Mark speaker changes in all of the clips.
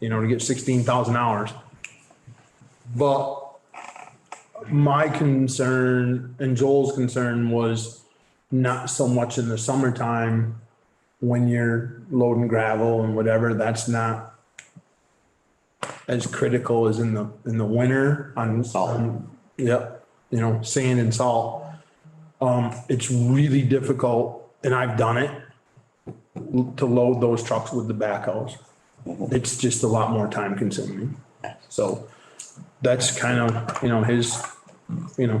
Speaker 1: you know, to get sixteen thousand hours. But my concern and Joel's concern was not so much in the summertime when you're loading gravel and whatever, that's not as critical as in the, in the winter on. Salt. Yep, you know, sand and salt. Um, it's really difficult, and I've done it, to load those trucks with the backhoes. It's just a lot more time consuming. So that's kind of, you know, his, you know,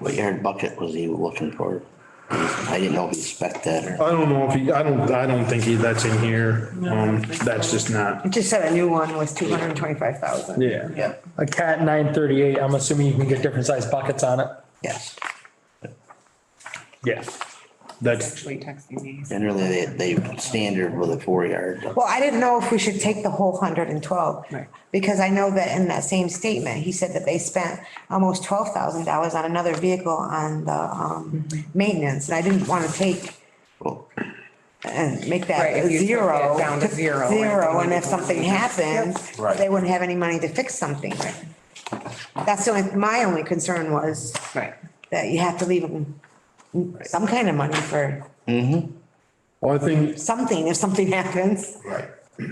Speaker 2: What yard bucket was he looking for? I didn't know if he spec that or,
Speaker 1: I don't know if he, I don't, I don't think he, that's in here. Um, that's just not,
Speaker 3: It just said a new one was two hundred and twenty-five thousand.
Speaker 1: yeah.
Speaker 2: yeah,
Speaker 4: A cat nine thirty-eight, I'm assuming you can get different sized buckets on it.
Speaker 2: yes.
Speaker 1: Yeah. That's,
Speaker 3: Actually texting me.
Speaker 2: Generally, they, they standard with a four yard.
Speaker 3: Well, I didn't know if we should take the whole hundred and twelve.
Speaker 4: Right.
Speaker 3: Because I know that in that same statement, he said that they spent almost twelve thousand dollars on another vehicle on the, um,
Speaker 5: Mm-hmm.
Speaker 3: maintenance, and I didn't wanna take
Speaker 2: Well,
Speaker 3: and make
Speaker 5: Right,
Speaker 3: that
Speaker 5: if you took
Speaker 3: zero.
Speaker 5: it down to zero, and
Speaker 3: Zero,
Speaker 5: then
Speaker 3: and
Speaker 5: you
Speaker 3: if
Speaker 5: don't-
Speaker 3: something happened,
Speaker 1: Right.
Speaker 3: they wouldn't have any money to fix something. That's the only, my only concern was
Speaker 5: Right.
Speaker 3: that you have to leave them some kind of money for
Speaker 1: well, I think,
Speaker 3: something if something happens.
Speaker 1: right.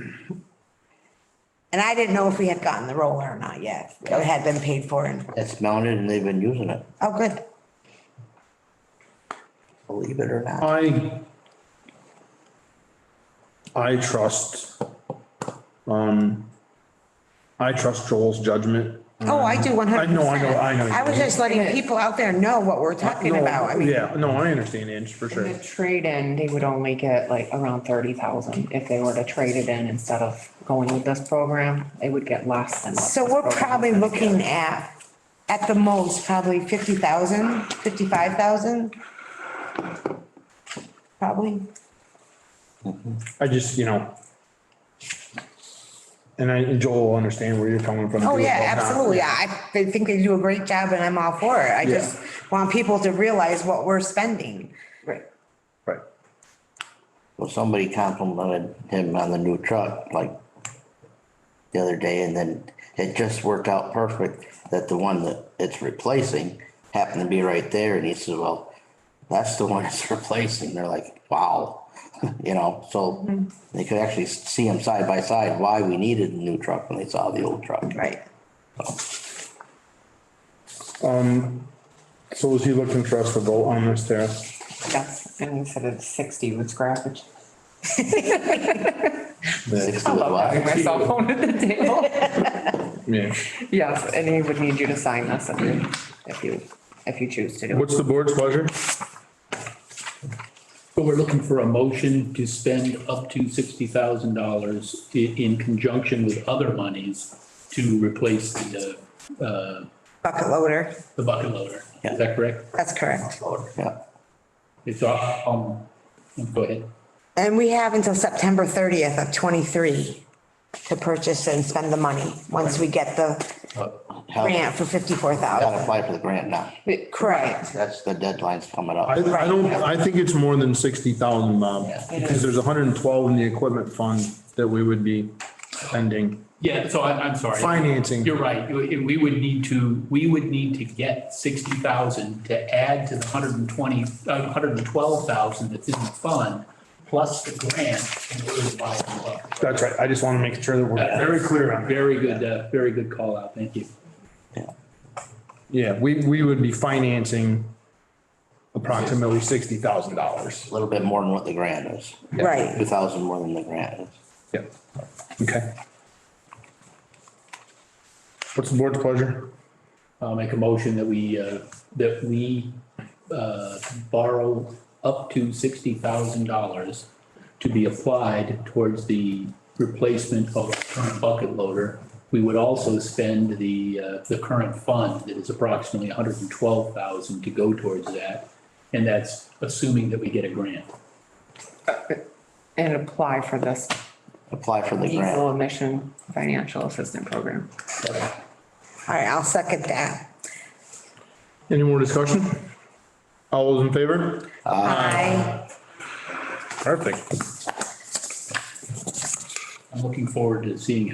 Speaker 3: And I didn't know if we had gotten the roller or not yet. It had been paid for and,
Speaker 2: it's mounted and they've been using it,
Speaker 3: oh, good.
Speaker 2: believe it or not.
Speaker 1: I I trust, um, I trust Joel's judgment.
Speaker 3: Oh, I do one
Speaker 1: I
Speaker 3: hundred
Speaker 1: know,
Speaker 3: percent.
Speaker 1: I know, I know.
Speaker 3: was just letting people out there know what we're talking
Speaker 1: No,
Speaker 3: about. I mean,
Speaker 1: Yeah, no, I understand, Ange, for sure.
Speaker 5: The trade-in, they would only get like around thirty thousand if they were to trade it in instead of going with this program, they would get less than. what
Speaker 3: so
Speaker 5: this
Speaker 3: we're
Speaker 5: program
Speaker 3: probably
Speaker 5: is.
Speaker 3: looking at, at the most, probably fifty thousand, fifty-five thousand. Probably.
Speaker 1: I just, you know. And I, and Joel will understand where you're coming from.
Speaker 3: Oh,
Speaker 1: too,
Speaker 3: yeah,
Speaker 1: about not-
Speaker 3: absolutely. I I think they do a great job and I'm all for it. I
Speaker 1: Yeah.
Speaker 3: just want people to realize what we're spending.
Speaker 5: Right.
Speaker 1: Right.
Speaker 2: Well, somebody complimented him on the new truck, like the other day, and then it just worked out perfect that the one that it's replacing happened to be right there, and he said, well, that's the one it's replacing, they're like, wow, you know, so they could actually see them side by side, why we needed the new truck when they saw the old truck.
Speaker 3: Right.
Speaker 1: So is he looking for us to vote on this, Tara?
Speaker 5: Yes, and instead of sixty with scrappage.
Speaker 2: Six
Speaker 5: I
Speaker 2: to
Speaker 5: love having
Speaker 2: what?
Speaker 5: my cell phone at the table.
Speaker 1: Yeah.
Speaker 5: Yes, and he would need you to sign this if you, if you, if you choose to do it.
Speaker 1: What's the board's pleasure?
Speaker 6: So we're looking for a motion to spend up to sixty thousand dollars in, conjunction with other monies to replace the, uh,
Speaker 3: Bucket loader.
Speaker 6: the bucket loader.
Speaker 2: Yeah.
Speaker 6: Is that correct?
Speaker 3: That's correct.
Speaker 2: Yeah,
Speaker 6: It's, um, go ahead.
Speaker 3: And we have until September thirtieth of twenty-three to purchase and spend the money, once we get the grant for fifty-four
Speaker 2: Gotta
Speaker 3: thousand.
Speaker 2: apply for the grant now,
Speaker 3: Correct.
Speaker 2: that's, the deadline's coming
Speaker 1: I,
Speaker 2: up.
Speaker 1: I don't, I think it's more than sixty thousand, Bob, because there's hundred and twelve in the equipment fund that we would be spending.
Speaker 6: Yeah, so I, I'm sorry.
Speaker 1: Financing.
Speaker 6: You're right. You- We would need to, we would need to get sixty thousand to add to the hundred and twenty, uh, hundred and twelve thousand that's in the fund, plus the grant in order to buy the bucket.
Speaker 1: That's right. I just want to make sure that
Speaker 6: Uh,
Speaker 1: we're,
Speaker 6: Very clear, uh, very good, uh, very good call out, thank you.
Speaker 1: yeah, we, we would be financing approximately sixty thousand dollars.
Speaker 2: A little bit more than what the grant is, two
Speaker 3: Right.
Speaker 2: thousand more than the grant is.
Speaker 1: Yeah. Okay. What's the board's pleasure?
Speaker 6: I'll make a motion that we, uh, that we uh, borrow up to sixty thousand dollars to be applied towards the replacement of our current bucket loader. We would also spend the, uh, the current fund that is approximately $112,000 to go towards that. And that's assuming that we get a grant.
Speaker 5: And apply for this
Speaker 2: Apply for the grant.
Speaker 5: diesel emission financial assistance program.
Speaker 3: All right, I'll second that.
Speaker 1: Any more discussion? All those in favor?
Speaker 3: Aye.
Speaker 1: Perfect.
Speaker 6: I'm looking forward to seeing